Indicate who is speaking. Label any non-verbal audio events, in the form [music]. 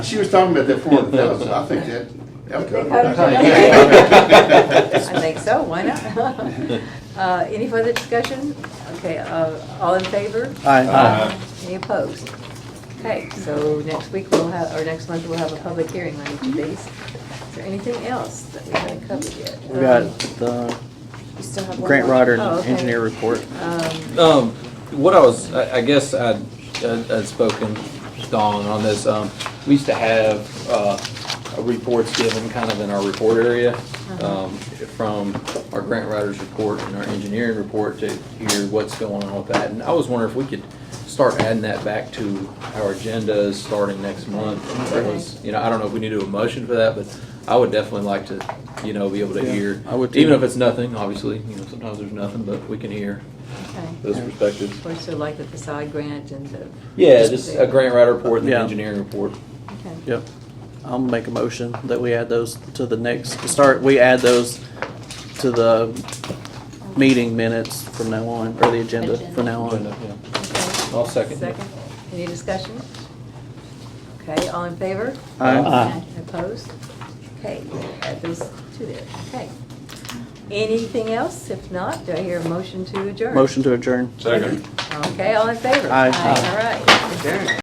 Speaker 1: She was talking about that four hundred thousand, I think that, that would
Speaker 2: I [laughs]
Speaker 1: go.
Speaker 2: think so, why not? [laughs] Uh, Any further discussion? Okay, uh, all in favor?
Speaker 3: Aye.
Speaker 2: Any opposed? Okay, so next week we'll have, or next month we'll have a public hearing on each of these. Is there anything else that we haven't covered yet? Um,
Speaker 3: We got the
Speaker 4: You still have one
Speaker 3: Grant
Speaker 4: more.
Speaker 3: Rodder
Speaker 2: Oh, okay.
Speaker 3: engineer report.
Speaker 2: Um,
Speaker 5: Um, what I was, I, I guess I'd, I'd I'd spoken, Dawn, on this, um, we used to have, uh, reports given kind of in our report area, um, from our grant writers report and our engineering report to hear what's going on with that. And I was wondering if we could start adding that back to our agendas starting next month. It was, you know, I don't know if we need to do a motion for that, but I would definitely like to, you know, be able to hear.
Speaker 3: I would too.
Speaker 5: Even if it's nothing, obviously, you know, sometimes there's nothing, but we can hear
Speaker 2: Okay.
Speaker 5: those perspectives.
Speaker 2: Or so like the facade grant and the.
Speaker 5: Yeah, just a grant writer report and an
Speaker 3: Yeah.
Speaker 5: engineering report.
Speaker 2: Okay.
Speaker 3: Yep. I'll make a motion that we add those to the next, to start, we add those to the meeting minutes from now on, or the agenda from now on.
Speaker 2: Okay.
Speaker 5: I'll second.
Speaker 2: Second. Any discussion? Okay, all in favor?
Speaker 3: Aye.
Speaker 2: Opposed? Okay, add those two there, okay. Anything else? If not, do I hear a motion to adjourn?
Speaker 3: Motion to adjourn.
Speaker 2: Okay, all in favor?
Speaker 3: Aye.
Speaker 2: All right, adjourn.